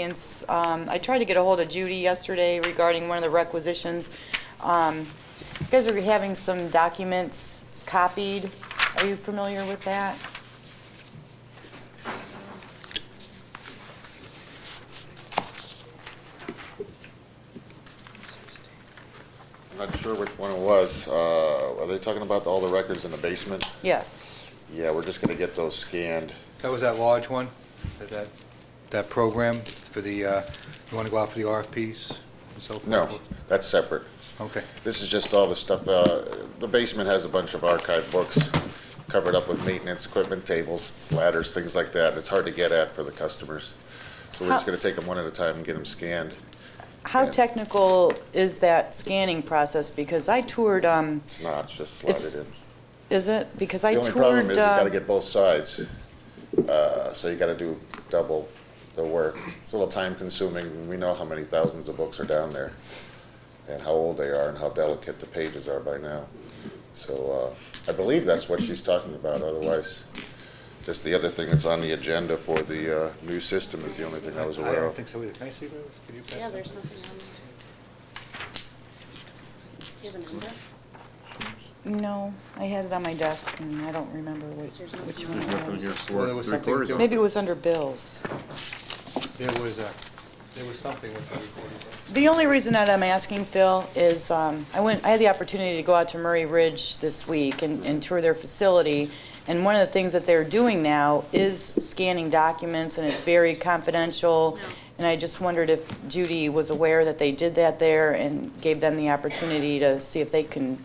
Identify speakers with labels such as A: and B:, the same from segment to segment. A: variance. Um, I tried to get a hold of Judy yesterday regarding one of the requisitions. Um, You guys are having some documents copied. Are you familiar with that?
B: I'm not sure which one it was. Uh, Are they talking about all the records in the basement?
A: Yes.
B: Yeah, we're just going to get those scanned.
C: That was that large one, that- that, that program for the, uh, you want to go out for the RFPs and so forth?
B: No, that's separate.
C: Okay.
B: This is just all the stuff, uh, the basement has a bunch of archive books covered up with maintenance equipment, tables, ladders, things like that. It's hard to get at for the customers. So we're just
A: How-
B: going to take them one at a time and get them scanned.
A: How technical is that scanning process? Because I toured, um,
B: It's not, it's just slide
A: It's-
B: it in.
A: is it? Because I
B: The
A: toured...
B: only problem is you
A: uh,
B: gotta get both sides, uh, so you gotta do double the work. It's a little time consuming, we know how many thousands of books are down there, and how old they are, and how delicate the pages are by now. So, uh, I believe that's what she's talking about, otherwise, just the other thing that's on the agenda for the, uh, new system is the only thing I was
C: I
B: aware
C: don't
B: of.
C: think so either. Can I see those? Could you pass
D: Yeah,
C: those?
D: there's nothing on there. Do you have a number?
A: No, I had it on my desk, and I don't remember which
D: There's nothing
A: which
D: on
A: one
D: there.
A: it
E: Nothing
A: was.
E: against
C: Well, there
E: work,
C: was
E: three
C: something
E: quarters of
C: doing-
E: it.
A: Maybe it was under bills.
C: There was a, there was something with the recording.
A: The only reason that I'm asking, Phil, is um, I went, I had the opportunity to go out to Murray Ridge this week and and tour their facility, and one of the things that they're doing now is scanning documents, and it's very confidential, and I just wondered if Judy was aware that they did that there and gave them the opportunity to see if they can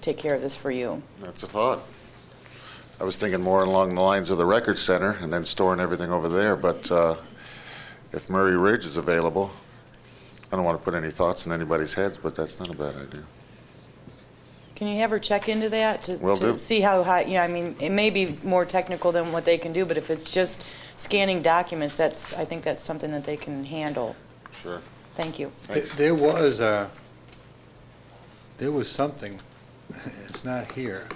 A: take care of this for you.
B: That's a thought. I was thinking more along the lines of the record center and then storing everything over there, but uh, if Murray Ridge is available, I don't want to put any thoughts in anybody's heads, but that's not a bad idea.
A: Can you have her check into that? to-
B: Will
A: to
B: do.
A: See how high, you know, I mean, it may be more technical than what they can do, but if it's just scanning documents, that's, I think that's something that they can handle.
B: Sure.
A: Thank you.
B: Thanks.
C: There was a, there was something, it's not here.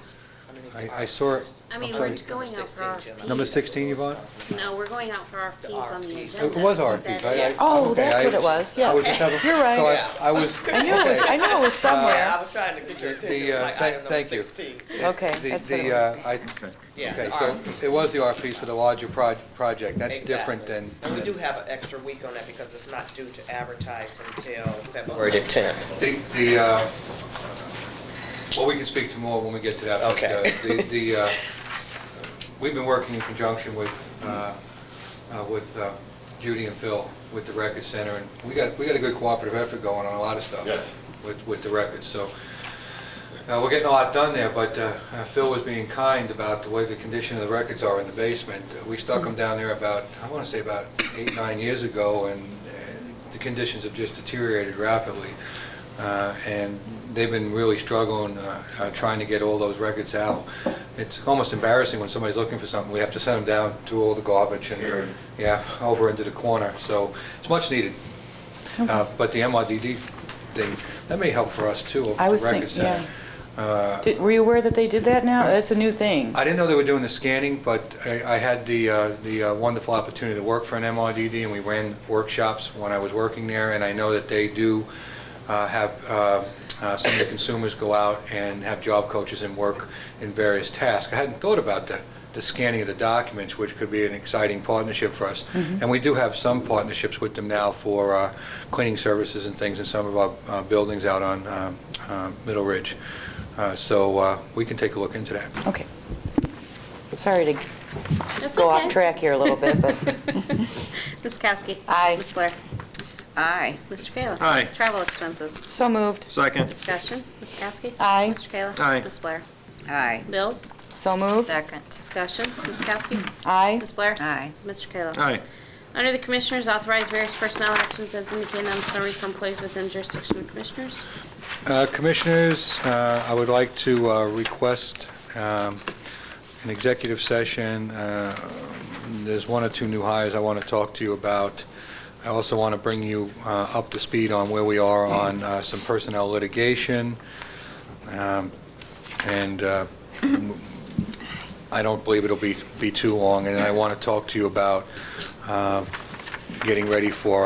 C: I, I saw it,
D: I mean,
C: I'm
D: we're
C: sorry.
D: going out for RFPs.
C: number 16, Yvonne?
D: No, we're going out for RFPs on the agenda.
C: It was
D: Is that
C: RFPs, right?
D: it?
C: I-
A: Oh,
C: okay,
A: that's
C: I-
A: what it was,
C: I was
A: yes.
C: just having-
A: You're right.
C: so I- I was.
A: I knew it was, I knew it was
F: Yeah, I
A: somewhere.
F: was trying to get your attention,
C: The,
F: It was
C: uh,
F: like
C: thank-
F: item number
C: thank you.
F: 16.
A: Okay,
C: The-
A: that's what it
C: the,
A: was.
C: uh, I-
F: Yeah,
C: Okay,
F: it's
C: so
F: RFPs.
C: it was the RFPs for the larger proj- project, that's different
F: um, Exactly.
C: than.
F: And we do have an extra week on that because it's not due to advertise until February the 10th.
C: The, the, uh, well, we can speak to more when we get to that. but, uh,
F: Okay.
C: The, the, uh, we've been working in conjunction with, uh, uh, with uh, Judy and Phil with the Record Center, and we got, we got a good cooperative effort going on a lot of stuff.
B: Yes.
C: With, with the records, so, uh, we're getting a lot done there, but uh, uh, Phil was being kind about the way the condition of the records are in the basement. Uh, We stuck them down there about, I want to say about eight, nine years ago, and uh, the conditions have just deteriorated rapidly. Uh, And they've been really struggling, uh, uh, trying to get all those records out. It's almost embarrassing when somebody's looking for something, we have to send them down to all the garbage and, yeah, over into the corner, so it's much needed. Uh, But the MRDD thing, that may help for us too, over
A: I
C: at
A: was
C: the
A: thinking,
C: Record Center.
A: yeah. Did- Were you aware that they did that now? That's a new thing.
C: Uh, I didn't know they were doing the scanning, but I I had the uh, the uh, wonderful opportunity to work for an MRDD, and we ran workshops when I was working there, and I know that they do uh, have, uh, uh, some of the consumers go out and have job coaches and work in various tasks. I hadn't thought about the the scanning of the documents, which could be an exciting partnership for us. And we do have some partnerships with them now for uh, cleaning services and things in some of our uh, buildings out on um, uh, Middle Ridge. Uh, So uh, we can take a look into that.
A: Okay. Sorry to
D: That's
A: go
D: okay.
A: off track here a little bit, but
D: Ms. Kowski.
A: Aye.
D: Ms. Blair. Aye. Mr. Kayla.
E: Aye.
D: Travel expenses.
A: so moved,
E: Second,
D: Discussion. Ms. Kowski.
A: Aye.
D: Mr. Kayla.
E: Aye.
D: Ms. Blair.
G: Aye.
D: Bills.
A: so moved.
G: Second.
D: Discussion. Ms. Kowski.
A: Aye,
D: Ms. Blair.
G: Aye.
D: Mr. Kayla.
E: aye,
D: Under the Commissioners, authorize various personnel actions as indicated on the summary for employees within jurisdiction of Commissioners.
C: Uh, Commissioners, uh, I would like to uh, request um, an executive session. Uh, There's one or two new hires I want to talk to you about. I also want to bring you uh, up to speed on where we are on uh, some personnel litigation. Um, And uh, I don't believe it'll be be too long. And I want to talk to you about uh, getting ready for